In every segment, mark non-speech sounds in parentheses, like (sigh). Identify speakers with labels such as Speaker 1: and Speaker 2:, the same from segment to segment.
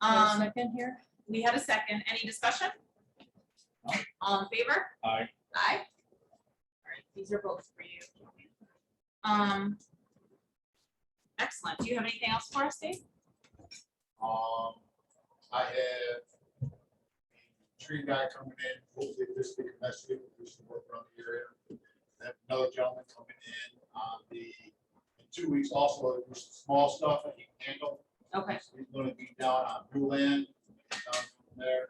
Speaker 1: Um,
Speaker 2: Second here?
Speaker 1: we had a second. Any discussion? All in favor?
Speaker 3: Aye.
Speaker 1: Aye. All right, these are both for you. Um. Excellent. Do you have anything else for us, Dave?
Speaker 4: Um, I have a tree guy coming in, hopefully this week, next week, we'll do some work around the area. I have another gentleman coming in on the, in two weeks also, there's some small stuff that he can handle.
Speaker 1: Okay,
Speaker 4: He's gonna be down on Blue Land, down from there,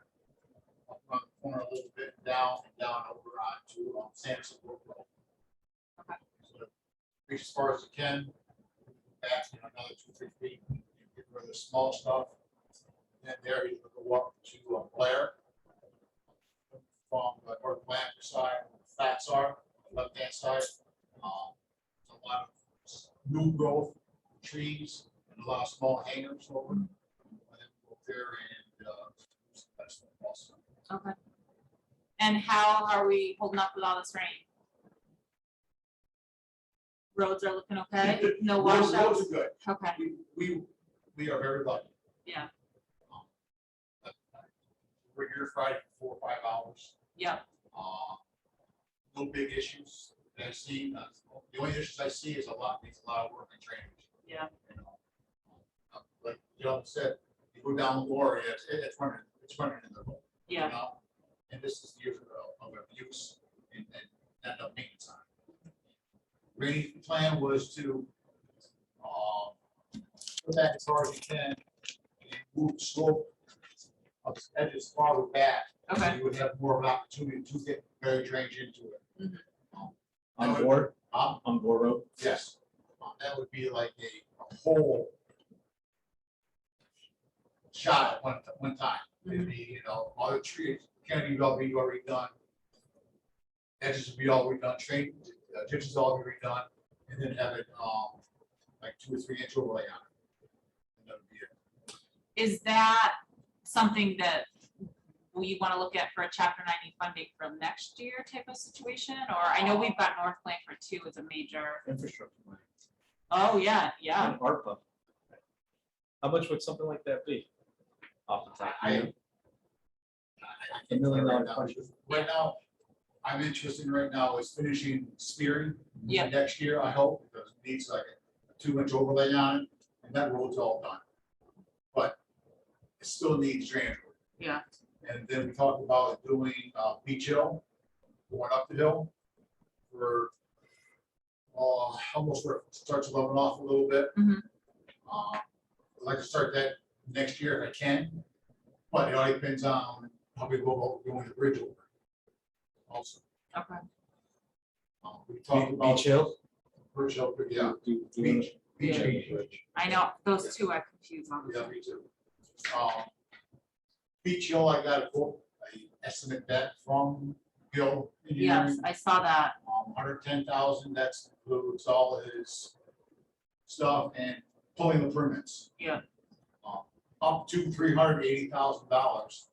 Speaker 4: up on the corner a little bit, down, and down over onto um, Sampson Brook Road.
Speaker 1: Okay.
Speaker 4: So, Reach as far as you can, back, you know, another two, three feet, get rid of the small stuff. And there he's gonna go up to uh, Blair. From the north Atlantic side, where the facts are, left hand side, um, a lot of new growth, trees, and a lot of small hangers over. And then go There and, uh, that's also.
Speaker 1: okay. And how are we holding up with all this rain? Roads are looking okay? No
Speaker 4: Roads-
Speaker 1: washouts?
Speaker 4: Roads are good.
Speaker 1: Okay,
Speaker 4: We, we, we are very lucky.
Speaker 1: Yeah.
Speaker 4: Um, but We're here Friday for four or five hours.
Speaker 1: yeah,
Speaker 4: Uh, No big issues that I see. uh, The only issues I see is a lot, needs a lot of work and drainage.
Speaker 1: Yeah.
Speaker 4: You know, uh, Like John said, you go down Gloria, it's, it's running, it's running in the road. you
Speaker 1: yeah,
Speaker 4: know? And this is the year of of abuse and, and not enough maintenance on it. Randy's plan was to, uh, put that as far as you can, and move slope up the edge as far back. so
Speaker 1: okay.
Speaker 4: You would have more of an opportunity to get very drainage into it.
Speaker 1: Mhm.
Speaker 3: On board,
Speaker 4: Um,
Speaker 3: Oh, on board road.
Speaker 4: yes, Uh, that would be like a, a whole shot at one, one time. It'd be, you know, all the trees, canopy would all be already done. Edges would be all redone, train, uh, ditches all be redone, and then have it, um, like two or three inch overlay on it. And that would be it.
Speaker 1: Is that something that we want to look at for a chapter ninety funding for next year type of situation? Or I know we've got North Blanford too as a major,
Speaker 3: Infrastructure. money.
Speaker 1: oh, yeah, yeah.
Speaker 3: And ARPA. How much would something like that be? Off the top. of your head?
Speaker 4: I- I
Speaker 3: A
Speaker 4: can't
Speaker 3: million
Speaker 4: tell
Speaker 3: dollar
Speaker 4: right now.
Speaker 3: question.
Speaker 4: Right now, I'm interested in right now is finishing spearing.
Speaker 1: Yeah.
Speaker 4: Next year, I hope, because it needs like a two inch overlay on it, and that road's all done. But it still needs drainage. work.
Speaker 1: Yeah.
Speaker 4: And then we talked about doing, uh, Beach Hill, going up the hill. We're, uh, almost where it starts leveling off a little bit.
Speaker 1: Mhm.
Speaker 4: Uh, I'd like to start that next year if I can, but it all depends on how we go about doing the bridge over. Also,
Speaker 1: Okay,
Speaker 4: uh, we talked
Speaker 3: Beach-
Speaker 4: about.
Speaker 3: Beach Hill?
Speaker 4: Bridge Hill, yeah.
Speaker 3: Do- do-
Speaker 4: Beach. Beach
Speaker 1: Yeah.
Speaker 4: Hill.
Speaker 1: I know, those two are confused on
Speaker 4: Yeah,
Speaker 1: the
Speaker 4: me too. Um, Beach Hill, I got a quote, I estimate that from Hill
Speaker 1: Yes,
Speaker 4: Engineering,
Speaker 1: I saw that,
Speaker 4: um, hundred ten thousand, that's includes all of his stuff and pulling the permits.
Speaker 1: Yeah.
Speaker 4: Um, Up to three hundred eighty thousand dollars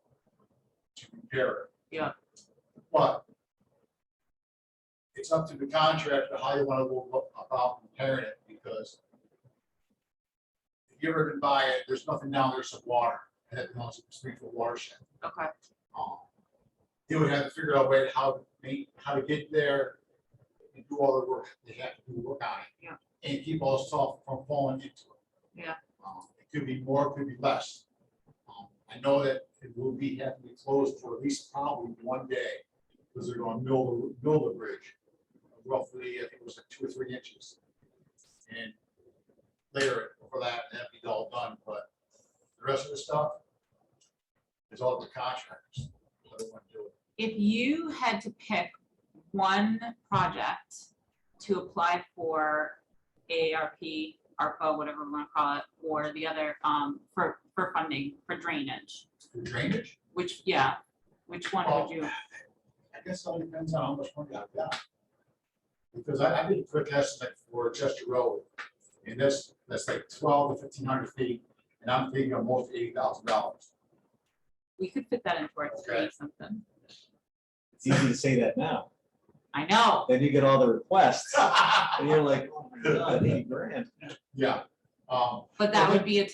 Speaker 4: to repair it.
Speaker 1: Yeah.
Speaker 4: But it's up to the contractor how you wanna go about repairing it, because if you ever been by it, there's nothing down there, some water, and it belongs to the Springfield watershed.
Speaker 1: okay,
Speaker 4: Um, They would have to figure out a way to how to make, how to get there and do all the work, they have to do work on it.
Speaker 1: Yeah.
Speaker 4: And keep all the stuff from falling into it.
Speaker 1: Yeah.
Speaker 4: Um, It could be more, it could be less. Um, I know that it will be, have to be closed for at least probably one day, because they're gonna mill, the mill the bridge. Roughly, I think it was like two or three inches. And later, for that, that'd be all done, but the rest of the stuff, it's all the contractors. what they wanna do.
Speaker 1: if you had to pick one project to apply for AARP, ARPA, whatever we want to call it, or the other, um, for, for funding, for drainage,
Speaker 4: The Drainage,
Speaker 1: which, yeah, which one would you?
Speaker 4: I guess it all depends on how much money I've got. Because I, I did a quick estimate for Chester Road, and that's, that's like twelve to fifteen hundred feet, and I'm thinking almost eighty thousand dollars. (laughs)
Speaker 1: We could fit that into our three
Speaker 4: Okay.
Speaker 1: something.
Speaker 3: It's easy to say that now.
Speaker 1: I know,
Speaker 3: Then you get all the requests and you're like, oh my god, eighty grand.
Speaker 4: Yeah, um,
Speaker 1: but that would be a